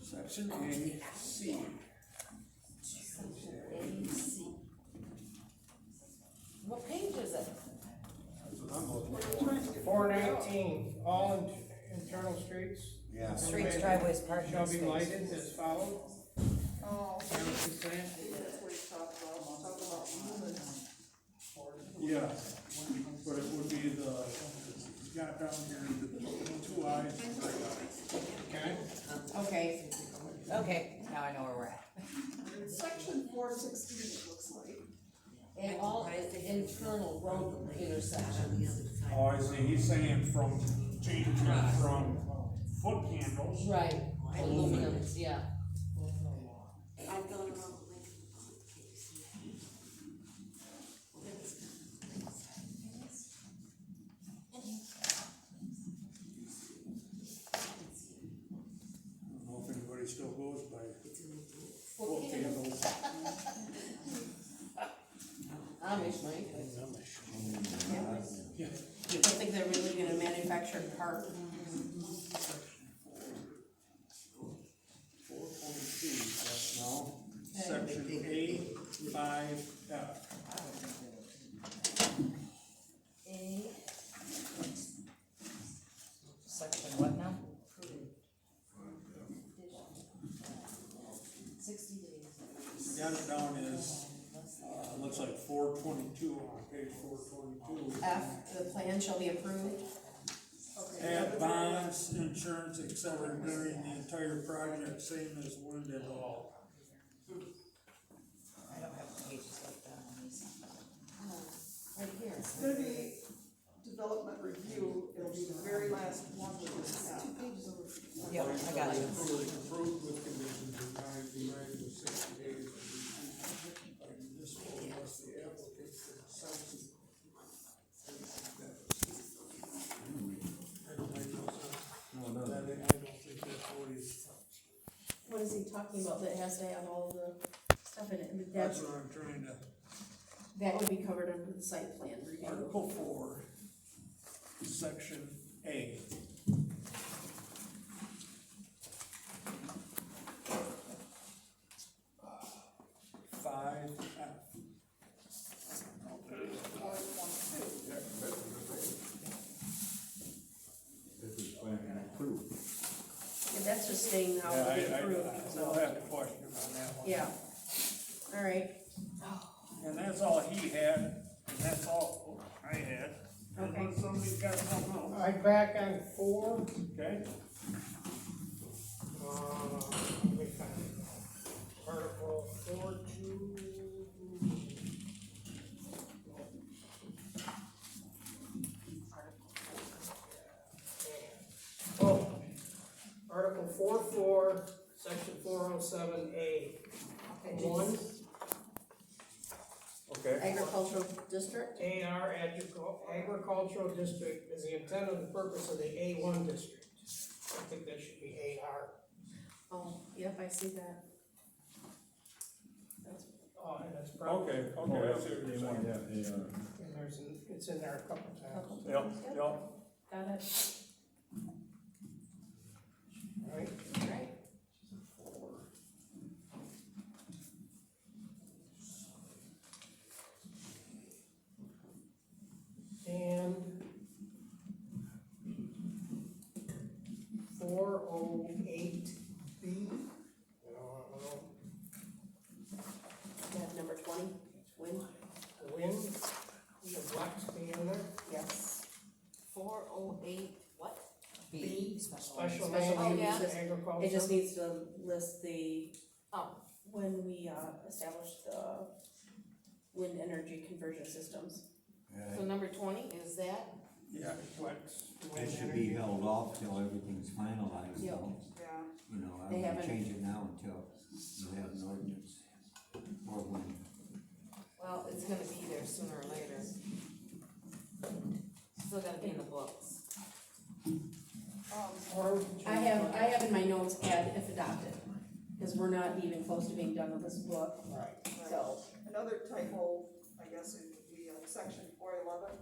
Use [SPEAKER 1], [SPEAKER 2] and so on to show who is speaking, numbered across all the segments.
[SPEAKER 1] Section A, C.
[SPEAKER 2] What page is it?
[SPEAKER 3] Four nineteen, all in- internal streets
[SPEAKER 1] Yeah.
[SPEAKER 2] Streets, driveways, parking
[SPEAKER 3] shall be
[SPEAKER 2] spaces.
[SPEAKER 3] lighted as follows.
[SPEAKER 4] Oh,
[SPEAKER 3] Township plan,
[SPEAKER 4] that's what he's talking about, he's talking about lumens.
[SPEAKER 5] Yeah, but it would be the, it's got down here, the two eyes, and three eyes.
[SPEAKER 3] okay?
[SPEAKER 2] Okay, okay, now I know where we're at.
[SPEAKER 4] It's Section four sixteen, it looks like.
[SPEAKER 2] And all internal road intersections.
[SPEAKER 5] Oh, I see, he's saying from, changing it from foot candles.
[SPEAKER 2] Right, aluminum, yeah.
[SPEAKER 6] I've gone around with
[SPEAKER 5] I don't know if anybody still goes by
[SPEAKER 2] Well,
[SPEAKER 5] foot candles.
[SPEAKER 2] Amish might.
[SPEAKER 6] I think they're really gonna manufacture part.
[SPEAKER 5] Four point two, that's now, section A, five, F.
[SPEAKER 2] A. Section what now? Sixty days.
[SPEAKER 5] Got it down as, uh, looks like four twenty-two on page four twenty-two.
[SPEAKER 6] F, the plan shall be approved.
[SPEAKER 5] Add bonds, insurance, et cetera, during the entire project, same as wind and all.
[SPEAKER 2] I don't have pages like that on these. Right here.
[SPEAKER 4] It's gonna be development review, it'll be the very last one with this app.
[SPEAKER 2] Yep, I got you.
[SPEAKER 5] Approved approved with conditions of ninety, ninety, sixty days. And This one was the applicant consensus. I don't make Oh, no sense. That, I don't think that's what he's,
[SPEAKER 7] What is he talking about that has to have all the stuff in it, and
[SPEAKER 5] that's
[SPEAKER 7] that,
[SPEAKER 5] what I'm trying to.
[SPEAKER 7] that would be covered under the site plan review.
[SPEAKER 5] Article four, section A. Five uh, F.
[SPEAKER 7] And that's just saying how
[SPEAKER 5] Yeah, I,
[SPEAKER 7] it'll be
[SPEAKER 5] I,
[SPEAKER 7] approved,
[SPEAKER 5] I'll
[SPEAKER 7] so,
[SPEAKER 5] have a question on that one.
[SPEAKER 7] yeah. All right,
[SPEAKER 5] And that's all he had, and that's all I had. Unless somebody's got something else.
[SPEAKER 3] All right, back on four.
[SPEAKER 5] Okay.
[SPEAKER 3] Uh, we found it. Article four two. Oh, Article four four, section four oh seven A, one,
[SPEAKER 5] Okay.
[SPEAKER 7] agricultural district,
[SPEAKER 3] A R agricultural district is the intent and the purpose of the A one district. I think that should be A R.
[SPEAKER 7] oh, yep, I see that. That's-
[SPEAKER 3] Oh, and that's probably,
[SPEAKER 5] Okay, okay, I see what you're saying.
[SPEAKER 3] and there's, an- it's in there a couple times.
[SPEAKER 5] Yep, yep.
[SPEAKER 7] Got it,
[SPEAKER 3] Right,
[SPEAKER 7] all right.
[SPEAKER 3] and four oh eight B.
[SPEAKER 7] That number twenty, win,
[SPEAKER 3] Wind, the blacks be in there,
[SPEAKER 7] yes.
[SPEAKER 2] Four oh eight, what? B. Special.
[SPEAKER 3] special
[SPEAKER 7] Special
[SPEAKER 3] land
[SPEAKER 7] land
[SPEAKER 3] use
[SPEAKER 7] use.
[SPEAKER 3] agriculture.
[SPEAKER 7] It just needs to list the, um,
[SPEAKER 2] Oh.
[SPEAKER 7] when we, uh, established the wind energy conversion systems.
[SPEAKER 2] So number twenty is that?
[SPEAKER 5] Yeah, flex.
[SPEAKER 3] wind
[SPEAKER 8] It should be
[SPEAKER 3] energy.
[SPEAKER 8] held off till everything's finalized,
[SPEAKER 7] Yeah.
[SPEAKER 8] though.
[SPEAKER 4] Yeah.
[SPEAKER 8] You know, I
[SPEAKER 7] They
[SPEAKER 8] wouldn't
[SPEAKER 7] haven't-
[SPEAKER 8] change it now until you have an ordinance. Or when,
[SPEAKER 2] Well, it's gonna be there sooner or later. Still gotta be in the books.
[SPEAKER 3] Or would you-
[SPEAKER 7] I have, I have in my notes, add if adopted, because we're not even close to being done with this book,
[SPEAKER 3] Right.
[SPEAKER 7] so.
[SPEAKER 4] Another typo, I guess it would be on section four eleven.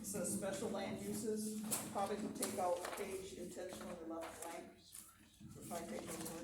[SPEAKER 4] It says special land uses, probably could take out page intentionally left blank. If I take those words